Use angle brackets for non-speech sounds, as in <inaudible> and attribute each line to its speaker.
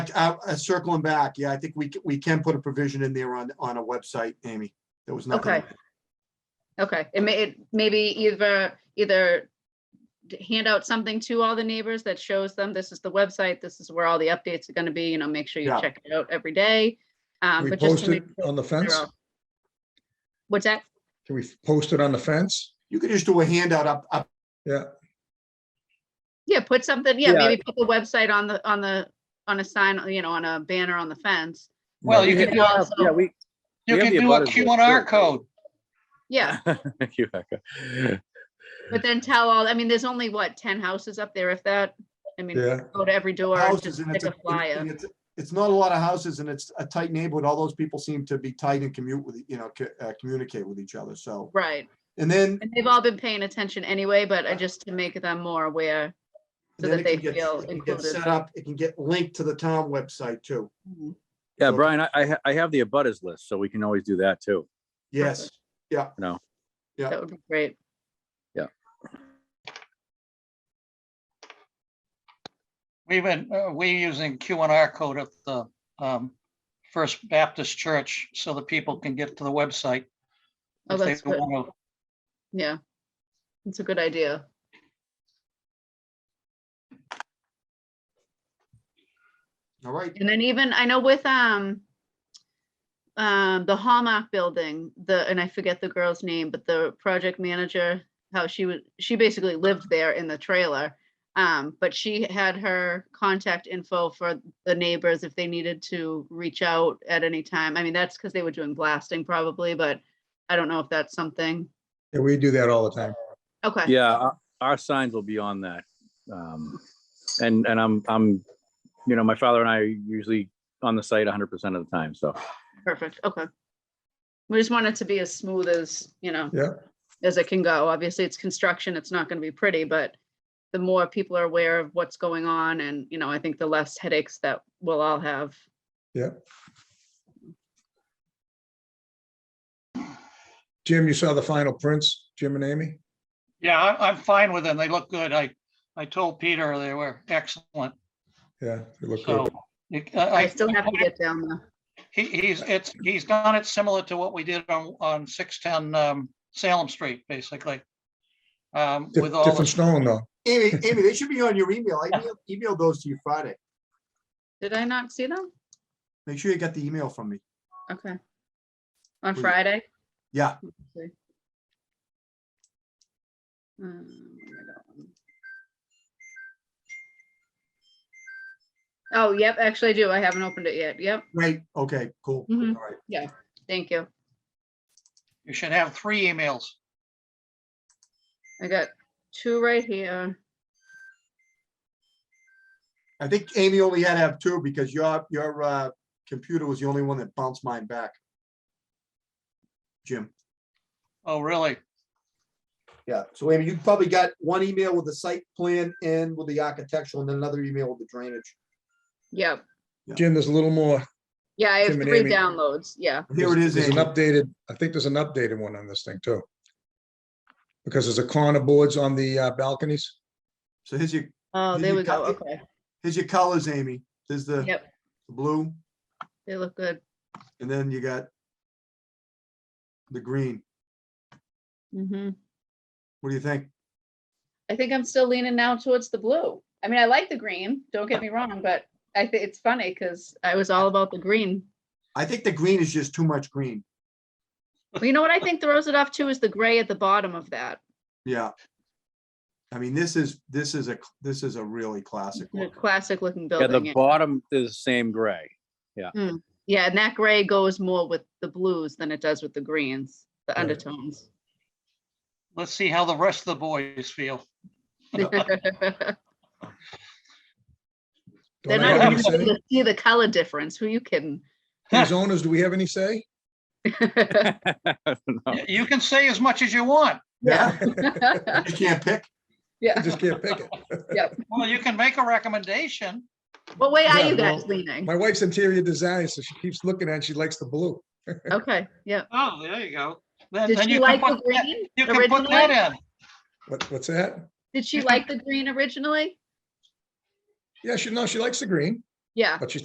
Speaker 1: Uh, uh, circling back, yeah, I think we, c- we can put a provision in there on, on a website, Amy. There was nothing.
Speaker 2: Okay. Okay, it may, it maybe either, either d- hand out something to all the neighbors that shows them, this is the website, this is where all the updates are gonna be, you know, make sure you
Speaker 1: Yeah.
Speaker 2: check it out every day. Um,
Speaker 3: we
Speaker 2: but just
Speaker 3: post
Speaker 2: to
Speaker 3: it
Speaker 2: make
Speaker 3: on the
Speaker 2: sure
Speaker 3: fence?
Speaker 2: all- What's that?
Speaker 3: Can we post it on the fence?
Speaker 1: You could just do a handout up, up,
Speaker 3: Yeah,
Speaker 2: Yeah, put something, yeah,
Speaker 4: Yeah.
Speaker 2: maybe put the website on the, on the, on a sign, you know, on a banner on the fence.
Speaker 5: Well, you
Speaker 2: And then
Speaker 5: can do, a-
Speaker 2: also-
Speaker 4: Yeah, we,
Speaker 5: you
Speaker 4: we have
Speaker 5: can
Speaker 4: the
Speaker 5: do a
Speaker 4: abutters list
Speaker 5: QR
Speaker 4: too.
Speaker 5: code.
Speaker 2: Yeah,
Speaker 6: <laughs> Thank you, Becca.
Speaker 2: but then tell all, I mean, there's only what, ten houses up there if that? I mean,
Speaker 3: yeah.
Speaker 2: go to every door, and
Speaker 1: houses
Speaker 2: just
Speaker 1: and it's,
Speaker 2: stick a
Speaker 1: a-
Speaker 2: flyer.
Speaker 1: and it's, it's not a lot of houses and it's a tight neighborhood. All those people seem to be tight and commute with, you know, co- uh, communicate with each other, so.
Speaker 2: Right,
Speaker 1: And then.
Speaker 2: and they've all been paying attention anyway, but I just to make them more aware. so
Speaker 1: then
Speaker 2: that
Speaker 1: it can
Speaker 2: they
Speaker 1: get-
Speaker 2: feel
Speaker 1: it can get
Speaker 2: included.
Speaker 1: Set up, it can get linked to the town website too.
Speaker 6: Yeah,
Speaker 1: So-
Speaker 6: Brian, I- I, ha- I have the abutters list, so we can always do that too.
Speaker 1: Yes, yeah.
Speaker 6: No.
Speaker 1: Yeah.
Speaker 2: That would be great.
Speaker 5: We've been, uh, we using QR code at the um, First Baptist Church so that people can get to the website.
Speaker 2: Oh,
Speaker 5: if they
Speaker 2: that's good.
Speaker 5: wanna.
Speaker 2: Yeah. It's a good idea.
Speaker 1: All right,
Speaker 2: And then even, I know with, um, um, the Hallmark building, the, and I forget the girl's name, but the project manager, how she was, she basically lived there in the trailer. Um, but she had her contact info for the neighbors if they needed to reach out at any time. I mean, that's because they were doing blasting probably, but I don't know if that's something.
Speaker 3: Yeah, we do that all the time.
Speaker 2: Okay.
Speaker 6: Yeah, our- our signs will be on that. Um, And, and I'm, I'm, you know, my father and I are usually on the site hundred percent of the time, so.
Speaker 2: Perfect, okay. We just want it to be as smooth as, you know.
Speaker 3: Yeah.
Speaker 2: As it can go. Obviously, it's construction, it's not gonna be pretty, but the more people are aware of what's going on and, you know, I think the less headaches that we'll all have.
Speaker 3: Jim, you saw the final prints, Jim and Amy?
Speaker 5: Yeah, I- I'm fine with them. They look good. I, I told Peter they were excellent.
Speaker 3: Yeah, they look
Speaker 5: So
Speaker 3: good.
Speaker 5: you- uh, I,
Speaker 2: I
Speaker 5: I-
Speaker 2: still have to get down there.
Speaker 5: he, he's, it's, he's done it similar to what we did on, on 610 um, Salem Street, basically. Um,
Speaker 3: Di-
Speaker 5: With all,
Speaker 3: Different
Speaker 5: the-
Speaker 3: stone though.
Speaker 1: Amy, Amy, they should be on your email. I emailed- emailed those to you Friday.
Speaker 2: Did I not see them?
Speaker 1: Make sure you got the email from me.
Speaker 2: Okay. On
Speaker 1: Was it-
Speaker 2: Friday?
Speaker 1: Yeah,
Speaker 2: Okay. Um, where I got one. Oh, yep, actually I do. I haven't opened it yet. Yep,
Speaker 1: great. Okay, cool. All
Speaker 2: Mhm.
Speaker 1: right.
Speaker 2: thank you.
Speaker 5: you should have three emails.
Speaker 2: I got two right here.
Speaker 1: I think Amy only had to have two because your, your, uh, computer was the only one that bounced mine back. Jim.
Speaker 5: Oh, really?
Speaker 1: Yeah, so Amy, you probably got one email with the site plan and with the architectural and then another email with the drainage.
Speaker 2: Yep.
Speaker 3: Jim, there's a little more.
Speaker 2: Yeah, I have
Speaker 3: Tim and
Speaker 2: three
Speaker 3: Amy.
Speaker 2: downloads. Yeah.
Speaker 1: Here it is,
Speaker 3: There's an
Speaker 1: Amy.
Speaker 3: updated, I think there's an updated one on this thing too. Because there's a corner boards on the uh, balconies.
Speaker 1: So here's your,
Speaker 2: Oh,
Speaker 1: Did
Speaker 2: there
Speaker 1: you
Speaker 2: we go.
Speaker 1: cut it?
Speaker 2: Okay.
Speaker 1: here's your colors, Amy. There's the
Speaker 2: Yep.
Speaker 1: the blue
Speaker 2: They look good.
Speaker 1: and then you got the green.
Speaker 2: hmm
Speaker 1: What do you think?
Speaker 2: I think I'm still leaning now towards the blue. I mean, I like the green. Don't get me wrong, but I think it's funny because I was all about the green.
Speaker 1: I think the green is just too much green.
Speaker 2: Well, you know what I think throws it off too is the gray at the bottom of that.
Speaker 1: Yeah. I mean, this is, this is a, cl- this is a really classic
Speaker 2: The <laughs>
Speaker 1: look.
Speaker 2: classic looking
Speaker 6: Yeah, the
Speaker 2: building. Yeah.
Speaker 6: bottom is the same gray. <laughs>
Speaker 2: Yeah, and that gray goes more with the blues than it does with the greens, the
Speaker 3: Right.
Speaker 2: undertones.
Speaker 5: Let's see how the rest of the boys feel.
Speaker 2: They're
Speaker 3: Don't I
Speaker 2: not even
Speaker 3: have any
Speaker 5: gonna
Speaker 2: gonna be
Speaker 3: say?
Speaker 2: able to see the color difference. Who you kidding? <laughs>
Speaker 3: These owners, do we have any say?
Speaker 6: No.
Speaker 5: You can say as much as you want.
Speaker 2: <laughs>
Speaker 1: Yeah,
Speaker 2: yeah.
Speaker 1: you can't pick.
Speaker 3: <laughs> I Just can't pick it.
Speaker 5: Well, you can make a recommendation.
Speaker 2: What way are
Speaker 3: Yeah,
Speaker 2: you guys
Speaker 3: well,
Speaker 2: leaning?
Speaker 3: My wife's interior designer, so she keeps looking at, it, she likes the blue.
Speaker 2: Okay, yeah.
Speaker 5: Oh, there you go. Then,
Speaker 2: Did
Speaker 5: then
Speaker 2: she
Speaker 5: you can
Speaker 2: like the
Speaker 5: put that,
Speaker 2: green?
Speaker 5: you can put
Speaker 2: originally?
Speaker 5: that in.
Speaker 3: What, what's that?
Speaker 2: Did she
Speaker 5: you can-
Speaker 2: like the green originally?
Speaker 3: Yeah, she, no, she likes the green,
Speaker 2: Yeah.
Speaker 3: but she